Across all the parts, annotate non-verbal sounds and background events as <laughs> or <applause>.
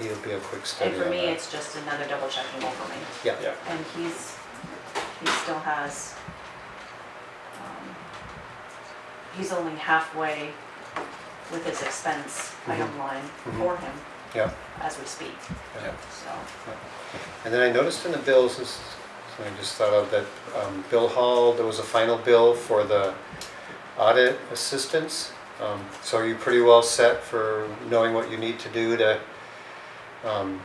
It'll be a quick study And on for me, that. it's just another double checking over me. Yeah, And he's, he still has, um, he's only halfway with his expense item line for him yeah, as we speak, yeah. so. And then I noticed in the bills, this is something I just thought of, that um, Bill Hall, there was a final bill for the audit assistance. Um, So are you pretty well set for knowing what you need to do to, um,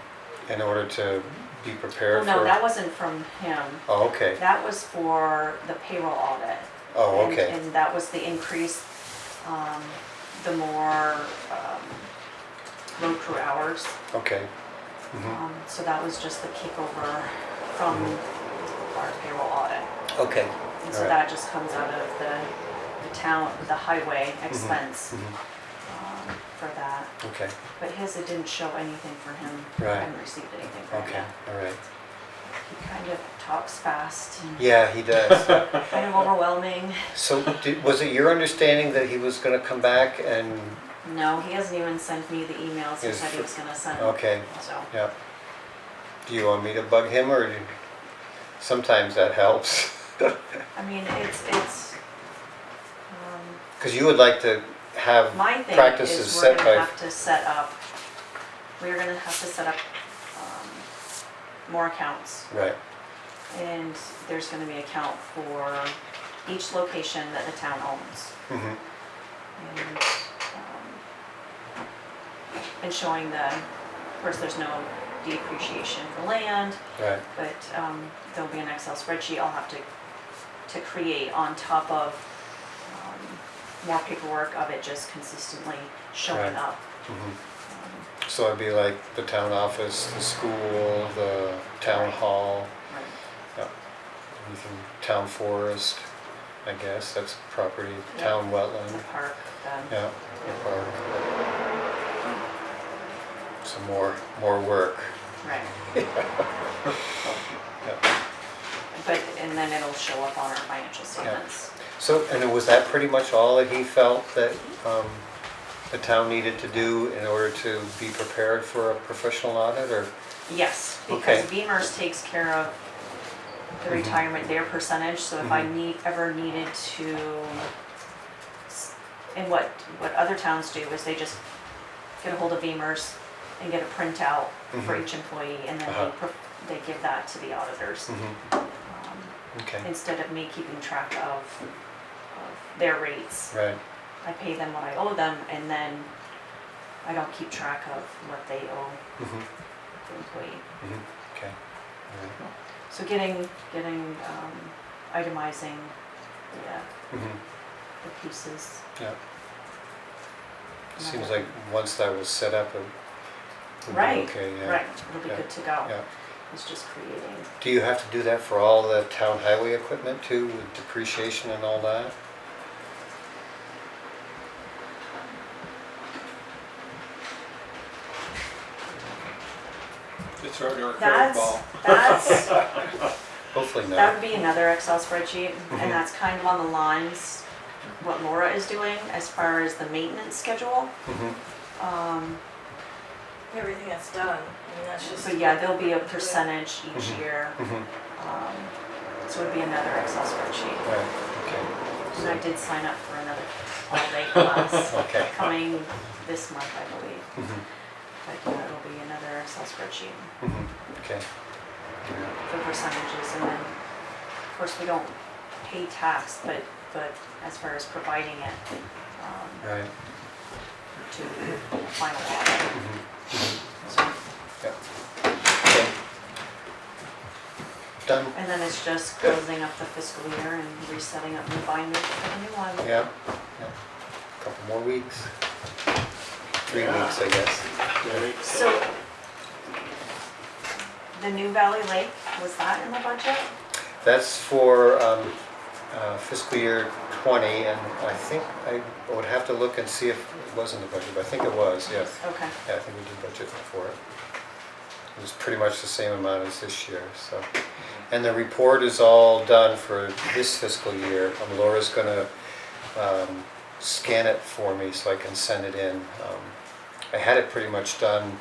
in order to be prepared for? Well, no, that wasn't from him. Oh, okay, That was for the payroll audit. oh, And- okay, And that was the increase, um, the more, um, road crew hours. okay. Mhm. Um, so that was just the kickover from our payroll audit. Okay. And so Alright. that just comes out of the, the town, the highway expense, Mhm. um, for that. Okay, But his, it didn't show anything for him. Right. I haven't received anything from okay, him. all right. He kind of talks fast and Yeah, he does. <laughs> kind of overwhelming. So did- was it your understanding that he was going to come back and, No, he hasn't even sent me the emails he Is- said he was gonna send. okay, So, yeah. Do you want me to bug him or do- sometimes that helps? I mean, it's, it's, um, Because you would like to have my thing practices is we're set gonna by, have to set up, we're gonna have to set up, um, more accounts. right, And there's gonna be an account for each location that the town owns. mhm, And, um, and showing the, of course, there's no depreciation for land, right, but um, there'll be an Excel spreadsheet I'll have to, to create on top of um, more paperwork of it just consistently showing Right. up. mhm. So it'd be like the town office, the school, the town hall, Right. anything, town forest, I guess, that's property, Yeah. town The wetland. park, the, Yeah, the park. Some more, more work. right. <laughs> Yeah. But, and then it'll show up on our financial statements. So, and was that pretty much all that he felt that um, the town needed to do in order to be prepared for a professional audit, or? Yes, because Okay. Beamers takes care of the Mhm. retirement, their percentage, so if Mm-hmm. I need, ever needed to, s- and what, what other towns do is they just get a hold of Beamers and get a printout for Mhm. each employee, and then Uh-huh. they, pro- they give that to the auditors, Mhm, um, Okay, instead of me keeping track of, of their rates. right, I pay them what I owe them, and then I don't keep track of what they owe mhm, the employee. mhm, okay. all right, So getting, getting, um, itemizing the, uh, mhm, the pieces. Yeah. Seems like once that was set up, it would be Right, okay, yeah. Right, it'll be yeah, good to go. Yeah. It's just creating, Do you have to do that for all the town highway equipment too, with depreciation and all that? It's right there, that's, curveball. <laughs> that's, Hopefully that not. would be another Excel spreadsheet, Mhm. and that's kind of on the lines what Laura is doing as far as the maintenance schedule. Mhm, Um, everything that's done, I mean, that's just. so yeah, there'll be a percentage each Mhm. year, mhm, um, so it'd be another Excel spreadsheet. Right, okay. And I did sign up for another all-day class Okay. coming this month, I believe. Mhm, But yeah, it'll be another Excel spreadsheet mhm, Okay. for percentages and then, of course, we don't pay tax, but, but as far as providing it, um, Right. to the final audit. mhm, So, yeah, okay. Done, And then it's just closing up the fiscal year and resetting up new binder for the new one. yeah, yeah. Couple more weeks. Three Yeah. weeks, I guess. So, the new Valley Lake, was that in the budget? That's for um, uh, fiscal year 20, and I think I would have to look and see if it was in the budget, but I think it was, yes. Okay, Yeah, I think we did budget for it. It was pretty much the same amount as this year, so. And the report is all done for this fiscal year. Um, Laura's gonna um, scan it for me so I can send it in. Um, I had it pretty much done